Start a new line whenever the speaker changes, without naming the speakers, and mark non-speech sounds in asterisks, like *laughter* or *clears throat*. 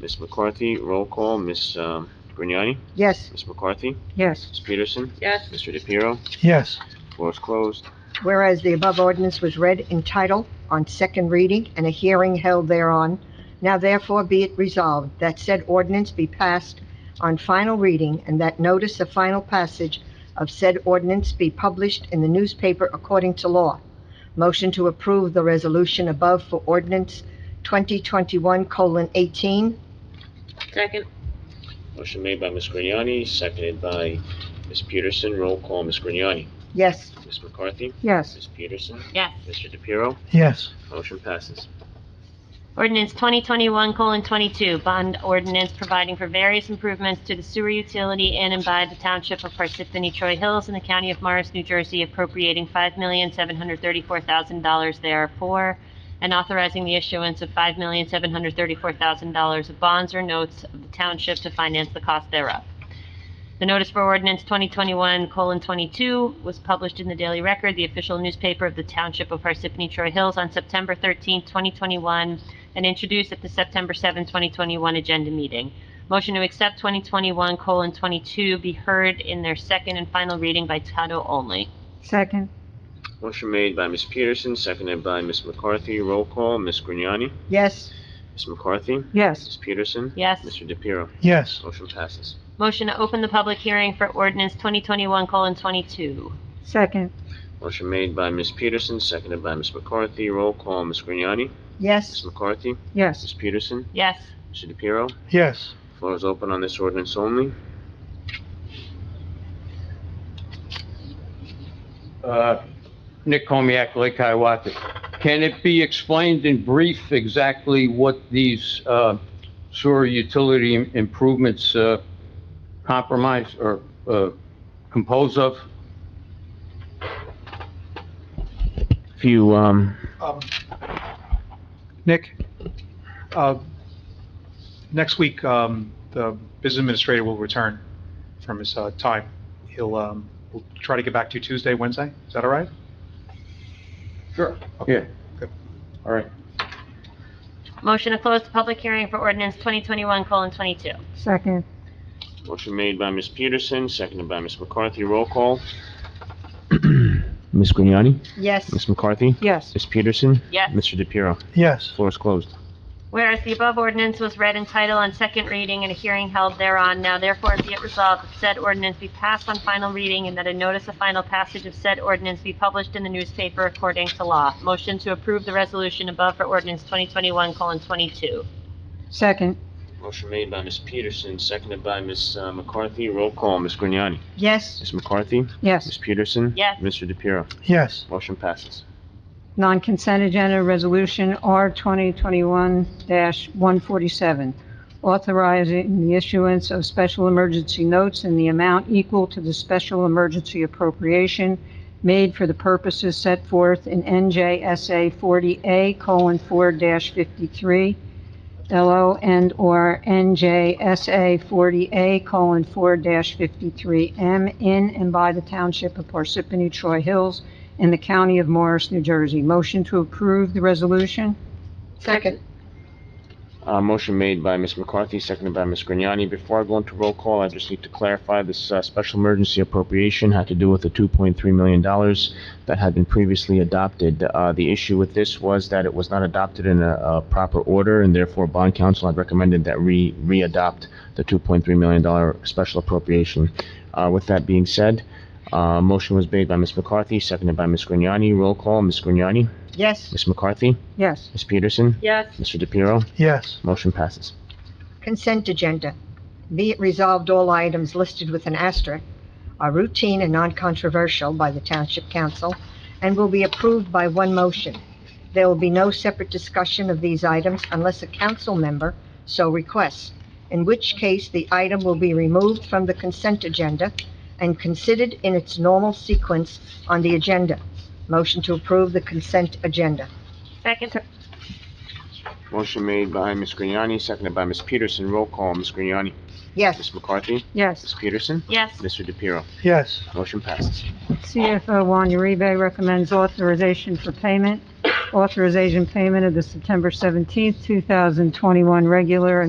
Ms. McCarthy, roll call, Ms. um, Grignani,
Yes,
Ms. McCarthy,
yes.
Ms. Peterson,
Yes.
Mr. DePiero,
yes,
floor is closed.
Whereas the above ordinance was read in title on second reading and a hearing held thereon, now therefore be it resolved that said ordinance be passed on final reading and that notice of final passage of said ordinance be published in the newspaper according to law. Motion to approve the resolution above for ordinance 2021:18.
Second.
Motion made by Ms. Grignani, seconded by Ms. Peterson, roll call, Ms. Grignani,
Yes,
Ms. McCarthy,
yes.
Ms. Peterson,
Yes.
Mr. DePiero,
yes,
motion passes.
Ordinance 2021:22, bond ordinance providing for various improvements to the sewer utility in and by the township of Parsippany Troy Hills in the county of Morris, New Jersey, appropriating $5,734,000 therefor, and authorizing the issuance of $5,734,000 of bonds or notes of the township to finance the cost thereof. The notice for ordinance 2021:22 was published in the Daily Record, the official newspaper of the Township of Parsippany Troy Hills, on September 13, 2021, and introduced at the September 7, 2021 agenda meeting. Motion to accept 2021:22 be heard in their second and final reading by title only.
Second.
Motion made by Ms. Peterson, seconded by Ms. McCarthy, roll call, Ms. Grignani,
Yes,
Ms. McCarthy,
yes.
Ms. Peterson,
Yes.
Mr. DePiero,
yes,
motion passes.
Motion to open the public hearing for ordinance 2021:22.
Second.
Motion made by Ms. Peterson, seconded by Ms. McCarthy, roll call, Ms. Grignani, Ms.
Yes,
McCarthy,
yes.
Ms. Peterson,
Yes.
Mr. DePiero,
yes,
floor is open on this ordinance only.
Uh, Nick Comiac, Lake Hiawatha. Can it be explained in brief exactly what these uh, sewer utility im- improvements uh, compromise or uh, compose of?
If you, um,
um, Nick, uh, next week, um, the business administrator will return from his, uh, time. He'll, um, we'll try to get back to you Tuesday, Wednesday, is that all right?
Sure. Yeah.
Okay.
All right.
Motion to close the public hearing for ordinance 2021:22.
Second.
motion made by Ms. Peterson, seconded by Ms. McCarthy, roll *clears throat* call. Ms. Grignani,
Yes,
Ms. McCarthy,
yes.
Ms. Peterson,
Yes.
Mr. DePiero,
Yes,
floor is closed.
Whereas the above ordinance was read in title on second reading and a hearing held thereon, now therefore be it resolved that said ordinance be passed on final reading and that a notice of final passage of said ordinance be published in the newspaper according to law. Motion to approve the resolution above for ordinance 2021:22.
Second.
Motion made by Ms. Peterson, seconded by Ms. uh, McCarthy, roll call, Ms. Grignani,
Yes,
Ms. McCarthy, Ms.
yes.
Peterson.
Yes.
Mr. DePiero,
yes,
motion passes.
Non-consent agenda resolution R 2021-147, authorizing the issuance of special emergency notes in the amount equal to the special emergency appropriation made for the purposes set forth in NJSA 40A:4-53, LO and/or NJSA 40A:4-53M in and by the Township of Parsippany Troy Hills in the county of Morris, New Jersey. Motion to approve the resolution? Second.
Uh, motion made by Ms. McCarthy, seconded by Ms. Grignani. Before I go into roll call, I just need to clarify, this, uh, special emergency appropriation had to do with the two point three million dollars that had been previously adopted. Uh, the issue with this was that it was not adopted in a, a proper order, and therefore bond council had recommended that we re-adopt the two point three million dollar special appropriation. Uh, with that being said, uh, motion was made by Ms. McCarthy, seconded by Ms. Grignani. Roll call, Ms. Grignani,
Yes,
Ms. McCarthy,
yes.
Ms. Peterson,
Yes.
Mr. DePiero.
yes,
Motion passes.
Consent agenda. Be it resolved, all items listed with an asterisk are routine and non-controversial by the Township Council and will be approved by one motion. There will be no separate discussion of these items unless a council member so requests, in which case the item will be removed from the consent agenda and considered in its normal sequence on the agenda. Motion to approve the consent agenda.
Second.
Motion made by Ms. Grignani, seconded by Ms. Peterson. Roll call, Ms. Grignani.
Yes,
Ms. McCarthy.
yes.
Ms. Peterson.
Yes.
Mr. DePiero.
yes,
Motion passes.
CFO Juan Uribe recommends authorization for payment.
authorization payment of the September 17th, 2021 regular and